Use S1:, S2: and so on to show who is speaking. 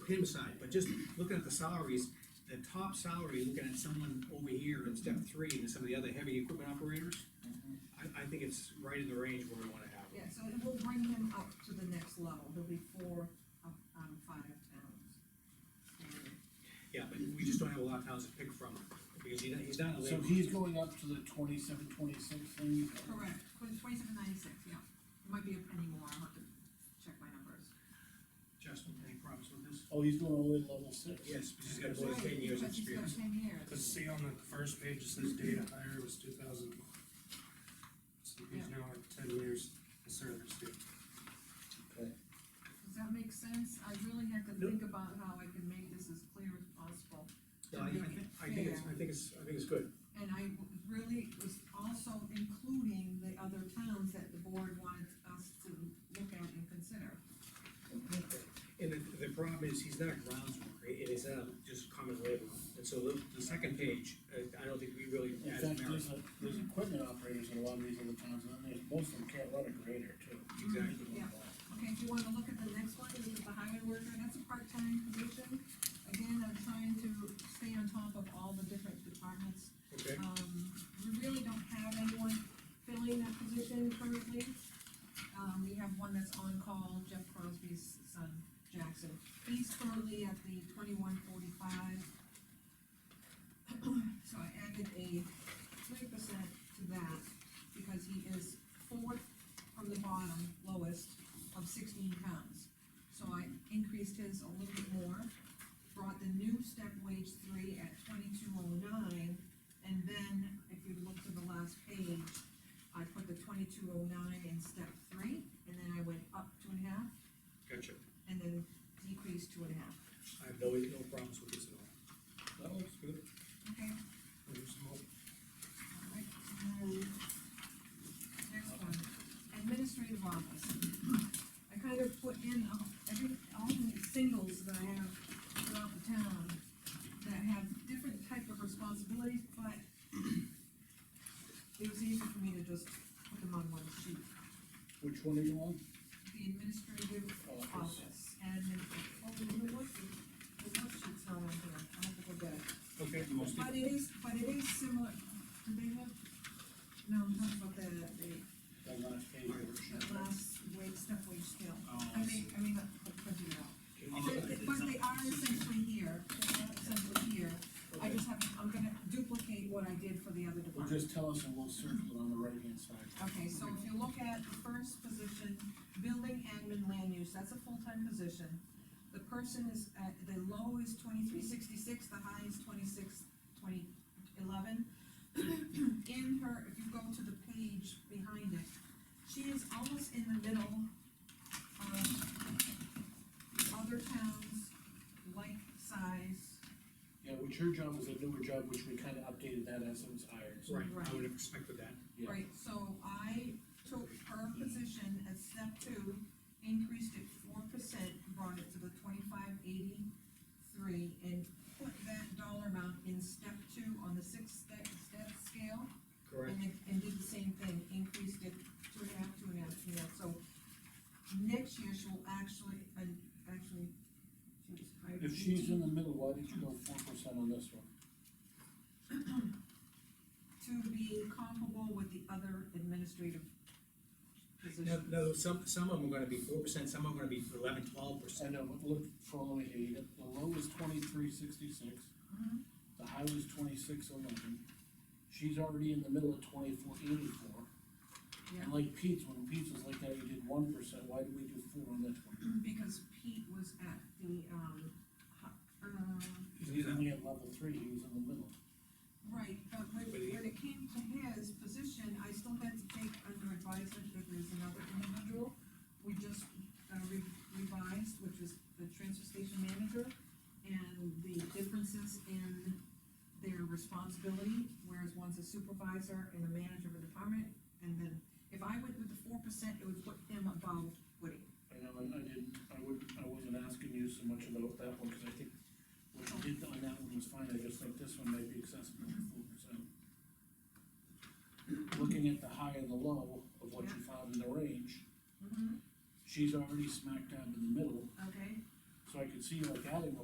S1: him side, but just looking at the salaries, the top salary, looking at someone over here in step three and some of the other heavy equipment operators, I, I think it's right in the range where we wanna have
S2: Yeah,
S1: them.
S2: so it will bring him up to the next level, he'll be four up out of five towns. And
S1: Yeah, but we just don't have a lot of towns to pick from, because he, he's not a
S3: So
S1: labor.
S3: he's going up to the twenty-seven, twenty-six thing?
S2: Correct, twenty-seven ninety-six, yeah, it might be a penny more, I'll have to check my numbers.
S1: Justin, any problems with this?
S3: Oh, he's going all the way to level six?
S1: Yes, because he's got more than ten
S2: Right,
S1: years of
S2: because he's got
S1: experience.
S2: Ten years.
S4: Cause see on the first page, it says data hire was two thousand. So he's now at ten years of service date.
S3: Okay.
S2: Does that make sense? I really had to think about how I can make this as clear as possible.
S1: No, I, I think, I think it's, I think it's, I think it's good.
S2: And I w- really was also including the other towns that the board wanted us to look at and consider.
S1: And the, the problem is, he's not a grounds worker, it is not just common labor. And so the, the second page, I, I don't think we really
S3: In
S1: added
S3: fact,
S1: merit.
S3: there's a, there's equipment operators in a lot of these other towns, and there's, most of them can't run a grader too.
S1: Exactly.
S2: Yeah. Okay, if you wanna look at the next one, this is the highway worker, that's a part-time position. Again, I'm trying to stay on top of all the different departments
S1: Okay,
S2: Um, we really don't have anyone filling that position currently. Um, we have one that's on call, Jeff Crosby's son, Jackson. He's currently at the twenty-one forty-five. So I added a three percent to that because he is fourth from the bottom, lowest of sixteen pounds. So I increased his a little bit more, brought the new step wage three at twenty-two oh nine, and then, if you look to the last page, I put the twenty-two oh nine in step three, and then I went up two and a half,
S1: gotcha.
S2: and then decreased two and a half.
S1: I have no, no problems with this at all.
S3: That looks good.
S2: Okay.
S4: There's more.
S2: All right, and then, Next one, administrative office. I kind of put in all- every, all the singles that I have throughout the town that have different type of responsibilities, but it was easy for me to just put them on one sheet.
S3: Which one are you on?
S2: the administrative
S3: Office.
S2: office, and, oh, you know what, the, the worksheet's not on here, I have to go back.
S1: Okay.
S2: But it is, but it is similar, do they have, no, I'm talking about the, the,
S3: That last page.
S2: that last wage, step wage scale.
S5: Oh,
S2: I mean, I mean, I printed it out.
S5: Oh,
S2: But,
S5: okay.
S2: but they are essentially here, they are essentially here, I just have, I'm gonna duplicate what I did for the other
S3: Well,
S2: department.
S3: just tell us and we'll circle it on the right hand side.
S2: Okay, so if you look at the first position, building admin land use, that's a full-time position. The person is, at the low is twenty-three sixty-six, the high is twenty-six, twenty, eleven. In her, if you go to the page behind it, she is almost in the middle of other towns, like size.
S3: Yeah, which her job was a newer job, which we kinda updated that as it was hired, so.
S1: Right, I would have expected that.
S3: Yeah.
S2: Right, so I took her position at step two, increased it four percent, brought it to the twenty-five eighty-three, and put that dollar amount in step two on the sixth step, step scale.
S1: Correct.
S2: And, it- and did the same thing, increased it two and a half, two and a half, two and a half, so next year she will actually, uh, actually, she was hired.
S3: If she's in the middle, why did you go four percent on this one?
S2: To be comparable with the other administrative
S1: No,
S2: positions.
S1: no, some, some of them are gonna be four percent, some of them are gonna be eleven, twelve percent.
S3: I know, but look, follow me here, you got, the low is twenty-three sixty-six,
S2: Mhm.
S3: the high was twenty-six eleven. She's already in the middle of twenty-four eighty-four,
S2: Yeah.
S3: and like Pete's, when Pete's was like that, you did one percent, why did we do four on this one?
S2: Because Pete was at the, um, hu- um,
S3: He was only at level three, he was in the middle.
S2: right, but when, when it came to his position, I still had to take under advisement that there's another individual. We just uh, re- revised, which was the transfer station manager, and the differences in their responsibility, whereas one's a supervisor and a manager of a department, and then if I went with the four percent, it would put him above Woody.
S3: I know, I, I didn't, I would, I wasn't asking you so much about that one, cause I think what you did on that one was fine, I just think this one might be accessible to four percent. Looking at the high and the low of what you found in the range, she's already smack dab in the middle,
S2: Okay,
S3: So I could see like adding a